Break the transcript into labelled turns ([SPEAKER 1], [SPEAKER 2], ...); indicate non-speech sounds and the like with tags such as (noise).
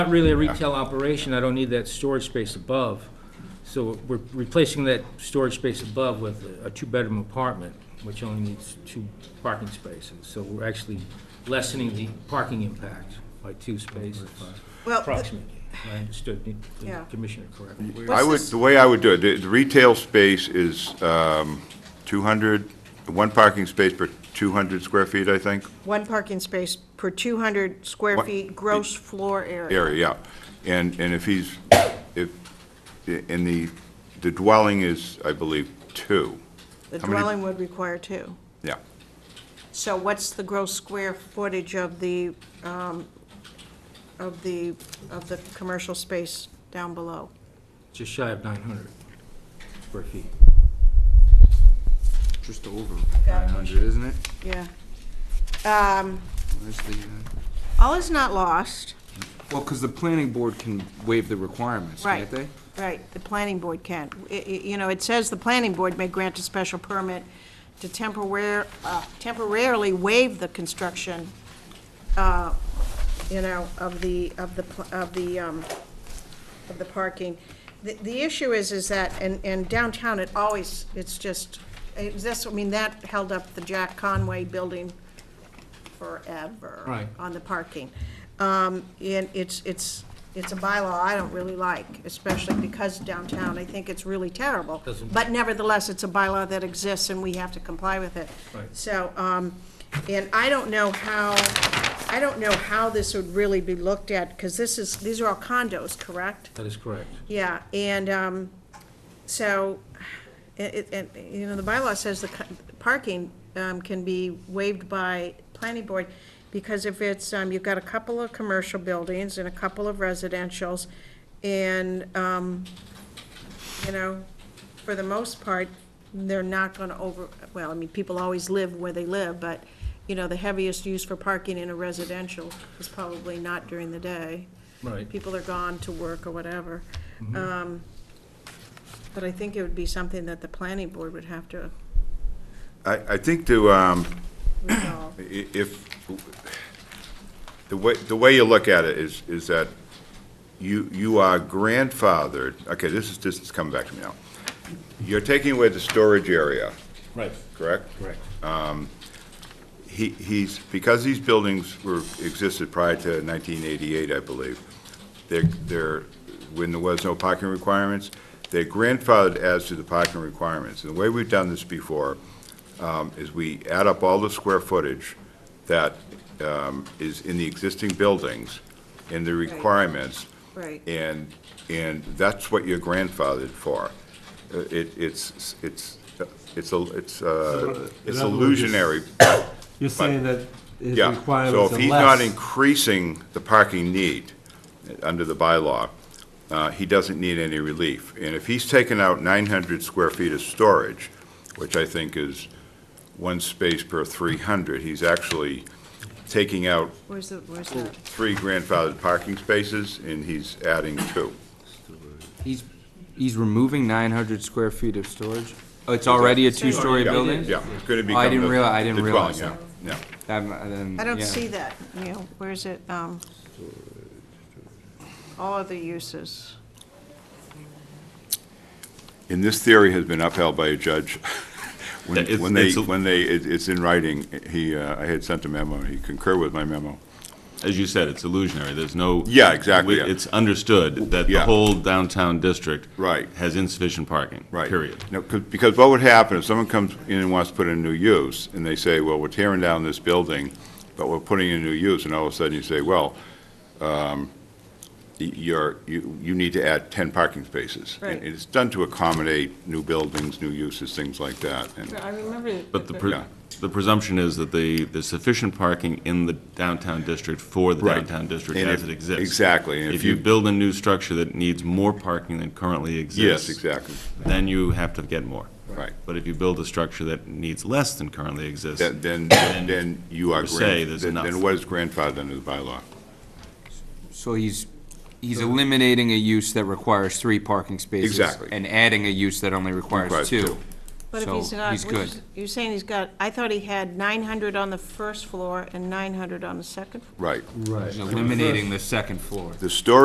[SPEAKER 1] Not really a retail operation, I don't need that storage space above. So we're replacing that storage space above with a- a two-bedroom apartment, which only needs two parking spaces. So we're actually lessening the parking impact by two spaces
[SPEAKER 2] Well, th-
[SPEAKER 1] approximately. I understood the- the
[SPEAKER 2] Yeah.
[SPEAKER 1] Commissioner correctly.
[SPEAKER 2] what's
[SPEAKER 3] I would,
[SPEAKER 2] this,
[SPEAKER 3] the way I would do it, the the retail space is um, 200, one parking space per 200 square feet, I think,
[SPEAKER 2] one parking space per 200 square
[SPEAKER 3] What-
[SPEAKER 2] feet gross floor area.
[SPEAKER 3] area, yeah. And, and if he's, if, and the, the dwelling is, I believe, two,
[SPEAKER 2] The
[SPEAKER 3] how many-
[SPEAKER 2] dwelling would require two.
[SPEAKER 3] yeah.
[SPEAKER 2] So what's the gross square footage of the, um, of the, of the commercial space down below?
[SPEAKER 1] Just shy of 900 square feet.
[SPEAKER 4] Just over
[SPEAKER 2] Got it.
[SPEAKER 4] 900, isn't it?
[SPEAKER 2] Yeah. Um,
[SPEAKER 4] Where's the, uh,
[SPEAKER 2] All is not lost,
[SPEAKER 4] Well, because the planning board can waive the requirements,
[SPEAKER 2] right.
[SPEAKER 4] can't they?
[SPEAKER 2] Right, the planning board can. I- I- You know, it says the planning board may grant a special permit to temporare- uh, temporarily waive the construction, uh, you know, of the, of the, pl- of the, um, of the parking. The, the issue is, is that, and, and downtown, it always, it's just, it's this, I mean, that held up the Jack Conway building forever.
[SPEAKER 1] Right.
[SPEAKER 2] On the parking. Um, and it's, it's, it's a bylaw I don't really like, especially because downtown, I think it's really terrible.
[SPEAKER 1] Doesn't-
[SPEAKER 2] But nevertheless, it's a bylaw that exists and we have to comply with it.
[SPEAKER 1] Right.
[SPEAKER 2] So, um, and I don't know how, I don't know how this would really be looked at, because this is, these are all condos, correct?
[SPEAKER 1] That is correct.
[SPEAKER 2] Yeah, and, um, so, it, it, and, you know, the bylaw says the co- parking, um, can be waived by planning board, because if it's, um, you've got a couple of commercial buildings and a couple of residentials, and, um, you know, for the most part, they're not gonna over, well, I mean, people always live where they live, but, you know, the heaviest use for parking in a residential is probably not during the day
[SPEAKER 1] Right.
[SPEAKER 2] people are gone to work or whatever.
[SPEAKER 4] Mm-hmm.
[SPEAKER 2] Um, But I think it would be something that the planning board would have to
[SPEAKER 3] I, I think to, um,
[SPEAKER 2] resolve.
[SPEAKER 3] i- if, the way, the way you look at it is, is that you, you are grandfathered, okay, this is, this is coming back to me now. You're taking away the storage area,
[SPEAKER 1] Right.
[SPEAKER 3] correct?
[SPEAKER 1] Correct.
[SPEAKER 3] He, he's, because these buildings were, existed prior to nineteen eighty-eight, I believe, they're, they're, when there was no parking requirements, they're grandfathered as to the parking requirements. And the way we've done this before, um, is we add up all the square footage that, um, is in the existing buildings and the requirements.
[SPEAKER 2] Right.
[SPEAKER 3] And, and that's what you're grandfathered for. Uh, It, it's, it's, uh, it's, a it's, uh, it's
[SPEAKER 5] In other words, it's-
[SPEAKER 3] illusionary,
[SPEAKER 5] You're saying that his
[SPEAKER 3] yeah,
[SPEAKER 5] requirements are less.
[SPEAKER 3] so if he's not increasing the parking need uh, under the bylaw, uh, he doesn't need any relief. And if he's taken out 900 square feet of storage, which I think is one space per 300, he's actually taking out
[SPEAKER 2] Where's the, where's the,
[SPEAKER 3] three grandfathered parking spaces, and he's adding two.
[SPEAKER 4] He's, he's removing 900 square feet of storage? Oh, it's already a two-story
[SPEAKER 3] Yeah,
[SPEAKER 4] building?
[SPEAKER 3] Yeah, it's going to
[SPEAKER 4] Oh, I
[SPEAKER 3] become
[SPEAKER 4] didn't
[SPEAKER 3] the
[SPEAKER 4] realize, I didn't
[SPEAKER 3] the dwelling,
[SPEAKER 4] realize
[SPEAKER 3] yeah,
[SPEAKER 4] that.
[SPEAKER 3] yeah.
[SPEAKER 4] I'm- I didn't-
[SPEAKER 2] I don't
[SPEAKER 4] yeah.
[SPEAKER 2] see that, you know, where's it, um, all other uses.
[SPEAKER 3] And this theory has been upheld by a
[SPEAKER 6] (laughs)
[SPEAKER 3] judge. When
[SPEAKER 6] It's-
[SPEAKER 3] when they,
[SPEAKER 6] it's a-
[SPEAKER 3] when they, it- it's in writing, he, uh, I had sent a memo, and he concurred with my memo.
[SPEAKER 6] as you said, it's illusionary, there's no.
[SPEAKER 3] Yeah, exactly,
[SPEAKER 6] we-
[SPEAKER 3] yeah.
[SPEAKER 6] It's understood that the
[SPEAKER 3] Yeah.
[SPEAKER 6] whole downtown district.
[SPEAKER 3] Right.
[SPEAKER 6] Has insufficient parking.
[SPEAKER 3] Right.
[SPEAKER 6] Period.
[SPEAKER 3] No, 'cause- because what would happen if someone comes in and wants to put in a new use, and they say, well, we're tearing down this building, but we're putting in a new use, and all of a sudden you say, well, um, y- you're, you, you need to add 10 parking spaces. And
[SPEAKER 2] Right.
[SPEAKER 3] It's done to accommodate new buildings, new uses, things like that. And
[SPEAKER 2] I remember.
[SPEAKER 6] But the,
[SPEAKER 3] Yeah.
[SPEAKER 6] pre- the presumption is that the, there's sufficient parking in the downtown district for the
[SPEAKER 3] Right.
[SPEAKER 6] downtown district
[SPEAKER 3] And
[SPEAKER 6] as
[SPEAKER 3] if-
[SPEAKER 6] it exists.
[SPEAKER 3] exactly, and
[SPEAKER 6] If you build a new structure that needs more parking than currently exists.
[SPEAKER 3] Yes, exactly,
[SPEAKER 6] Then you have to get more.
[SPEAKER 3] right.
[SPEAKER 6] But if you build a structure that needs less than currently exists,
[SPEAKER 3] Then, then- then you are,
[SPEAKER 6] per se,
[SPEAKER 3] grand-
[SPEAKER 6] there's
[SPEAKER 3] then
[SPEAKER 6] enough.
[SPEAKER 3] then what is grandfathered under the bylaw?
[SPEAKER 4] So he's, he's eliminating a use that requires three parking spaces.
[SPEAKER 3] Exactly.
[SPEAKER 4] And adding a use that only requires
[SPEAKER 3] Requires
[SPEAKER 4] two.
[SPEAKER 3] two.
[SPEAKER 2] But if
[SPEAKER 4] So
[SPEAKER 2] he's not,
[SPEAKER 4] he's
[SPEAKER 2] which is-
[SPEAKER 4] good.
[SPEAKER 2] you're saying he's got, I thought he had 900 on the first floor and 900 on the second floor?
[SPEAKER 3] Right.
[SPEAKER 5] Right.
[SPEAKER 4] eliminating the second floor.
[SPEAKER 3] The storage